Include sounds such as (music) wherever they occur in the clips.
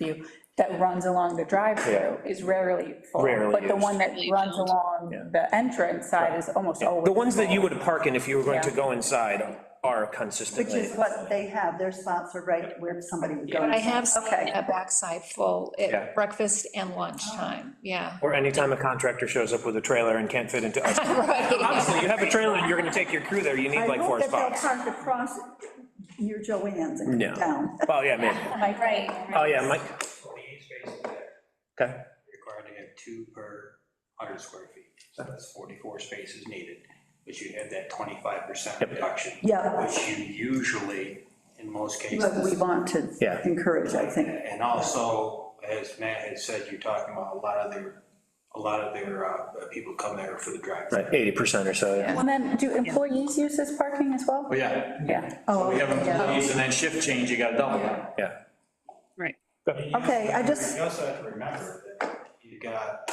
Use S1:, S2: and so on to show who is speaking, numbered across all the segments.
S1: view, that runs along the drive-through is rarely full.
S2: Rarely
S1: But the
S2: used.
S1: one that runs along the entrance side is almost
S3: Oh,
S1: always.
S2: The ones that you would park in if you were going to
S1: Yeah.
S2: go inside are
S3: Which
S2: consistently.
S3: is what they have, their spots are right where somebody would go.
S4: But I have seen
S3: Okay.
S4: a backside full
S2: Yeah.
S4: at breakfast and lunchtime, yeah.
S2: Or anytime a contractor shows up with a trailer and can't fit into
S3: (laughs)
S2: us.
S4: (laughs) Right.
S2: Honestly, you have a trailer and you're gonna take your crew there, you need like four spots.
S3: I hope that they'll park across your Joanne's and
S2: No.
S3: come down.
S2: Oh, yeah, man.
S1: Right.
S2: Oh, yeah, Mike,
S5: 28 spaces there,
S2: okay.
S5: required to have two per 100 square feet. So that's 44 spaces needed, but you had that 25% reduction.
S3: Yeah.
S5: Which you usually, in most
S3: But we
S5: cases.
S3: want to
S2: Yeah.
S3: encourage, I think.
S5: And also, as Matt had said, you're talking about a lot of their, a lot of their uh, people come there for the drive.
S2: Right, eighty percent or so, yeah.
S1: Well, then, do employees use this parking as well?
S5: Well, yeah,
S1: Yeah.
S3: Oh,
S5: we have
S3: yeah.
S5: employees and then shift change, you got double that.
S2: Yeah.
S3: Okay, I just-
S5: You also have to remember that you got,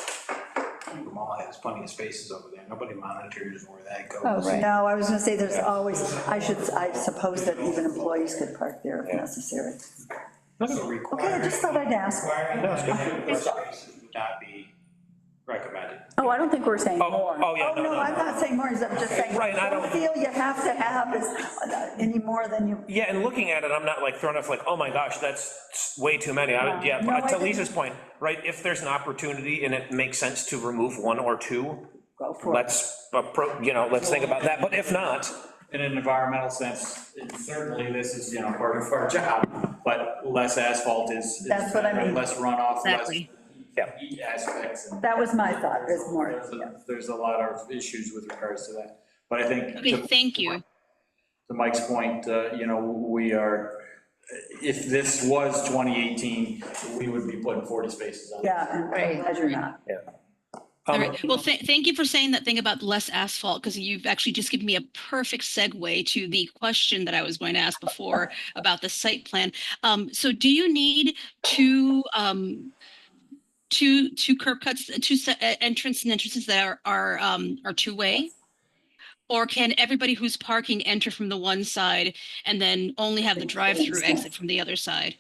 S5: the mall has plenty of spaces over there, nobody monitors where that goes.
S4: Oh, right.
S3: No, I was gonna say, there's always, I should, I suppose that even employees could park there if necessary.
S5: So
S3: Okay, I
S5: requiring,
S3: just thought I'd ask.
S5: requiring that more spaces would not be recommended.
S1: Oh, I don't think we're saying
S2: Oh,
S1: more.
S2: oh, yeah,
S3: Oh,
S2: no,
S3: no, I'm
S2: no.
S3: not saying more, I'm just saying,
S2: Right, and I
S3: don't
S2: don't-
S3: feel you have to have is uh, any more than you,
S2: Yeah, and looking at it, I'm not like thrown off like, oh my gosh, that's way too many. I, yeah,
S3: No,
S2: but
S3: I
S2: to
S3: didn't-
S2: Lisa's point, right, if there's an opportunity and it makes sense to remove one or two,
S3: go for it.
S2: let's, appro- you know, let's think about that, but if not,
S6: in an environmental sense, it- certainly this is, you know, part of our (laughs) job, but less asphalt is. is
S3: That's what I
S6: better,
S3: mean.
S6: Less runoff, less
S7: Exactly.
S2: Yeah.
S6: heat aspects. and-
S3: That was my thought, is more,
S6: There's a- There's a lot of issues with regards to that, but I think.
S7: Okay, thank you.
S6: To Mike's point, uh, you know, we are, if this was 2018, we would be putting 40 spaces on.
S3: yeah, and I'm
S4: Right.
S3: glad you're not.
S7: All
S2: um,
S7: right. Well, tha- thank you for saying that thing about less asphalt, because you've actually just given me a perfect segue to the question that I was going to ask before about the site plan. Um, so do you need two, um, two, two curb cuts, two se- e- entrance and entrances that are, are, um, are two-way? Or can everybody who's parking enter from the one side and then only have the drive-through exit from the other side?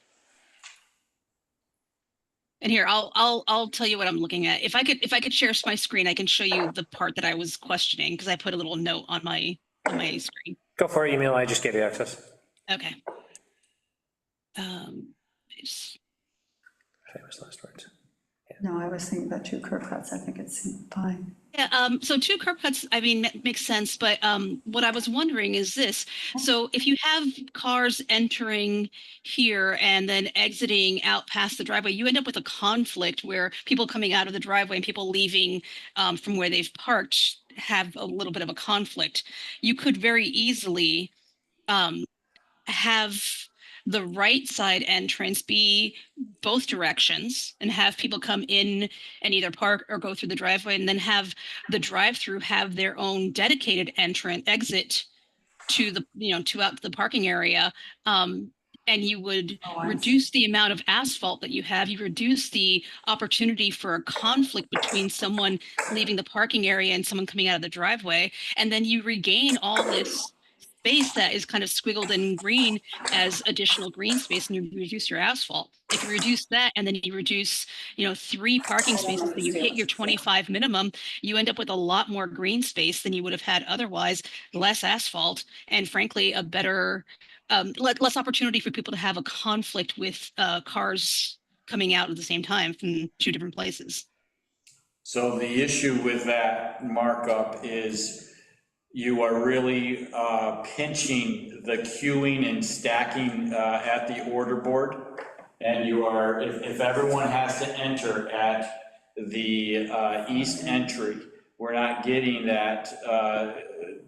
S7: And here, I'll, I'll, I'll tell you what I'm looking at. If I could, if I could share s- my screen, I can show you the part that I was questioning because I put a little note on my, on my screen.
S2: go for it, email, I just gave you access.
S7: Okay. Um, it's-
S2: Famous last words.
S3: No, I was thinking about two curb cuts, I think it's fine.
S7: Yeah, um, so two curb cuts, I mean, ma- makes sense, but, um, what I was wondering is this. So if you have cars entering here and then exiting out past the driveway, you end up with a conflict where people coming out of the driveway and people leaving, um, from where they've parked have a little bit of a conflict. You could very easily, um, have the right side entrance be both directions and have people come in and either park or go through the driveway and then have the drive-through have their own dedicated entrance exit to the, you know, to out to the parking area. Um, and you would
S3: Oh, I see.
S7: reduce the amount of asphalt that you have. You reduce the opportunity for a conflict between someone leaving the parking area and someone coming out of the driveway. And then you regain all this space that is kind of squiggled in green as additional green space and you reduce your asphalt. If you reduce that and then you reduce, you know, three parking spaces, that you hit your 25 minimum, you end up with a lot more green space than you would have had otherwise, less asphalt, and frankly, a better, um, le- less opportunity for people to have a conflict with, uh, cars coming out at the same time from two different places.
S6: So the issue with that markup is you are really uh, pinching the queuing and stacking uh, at the order board. And you are, if, if everyone has to enter at the uh, east entry, we're not getting that uh,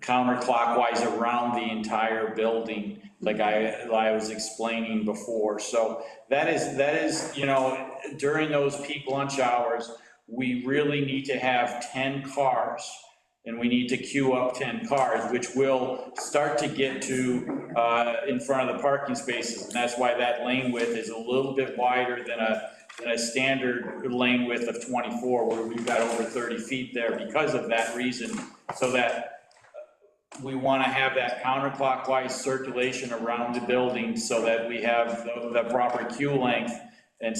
S6: counterclockwise around the entire building like I, I was explaining before. So that is, that is, you know, during those peak lunch hours, we really need to have 10 cars, and we need to queue up 10 cars, which will start to get to, uh, in front of the parking spaces, and that's why that lane width is a little bit wider than a, than a standard lane width of 24, where we've got over 30 feet there because of that reason, so that we want to have that counterclockwise circulation around the building so that we have the the proper queue length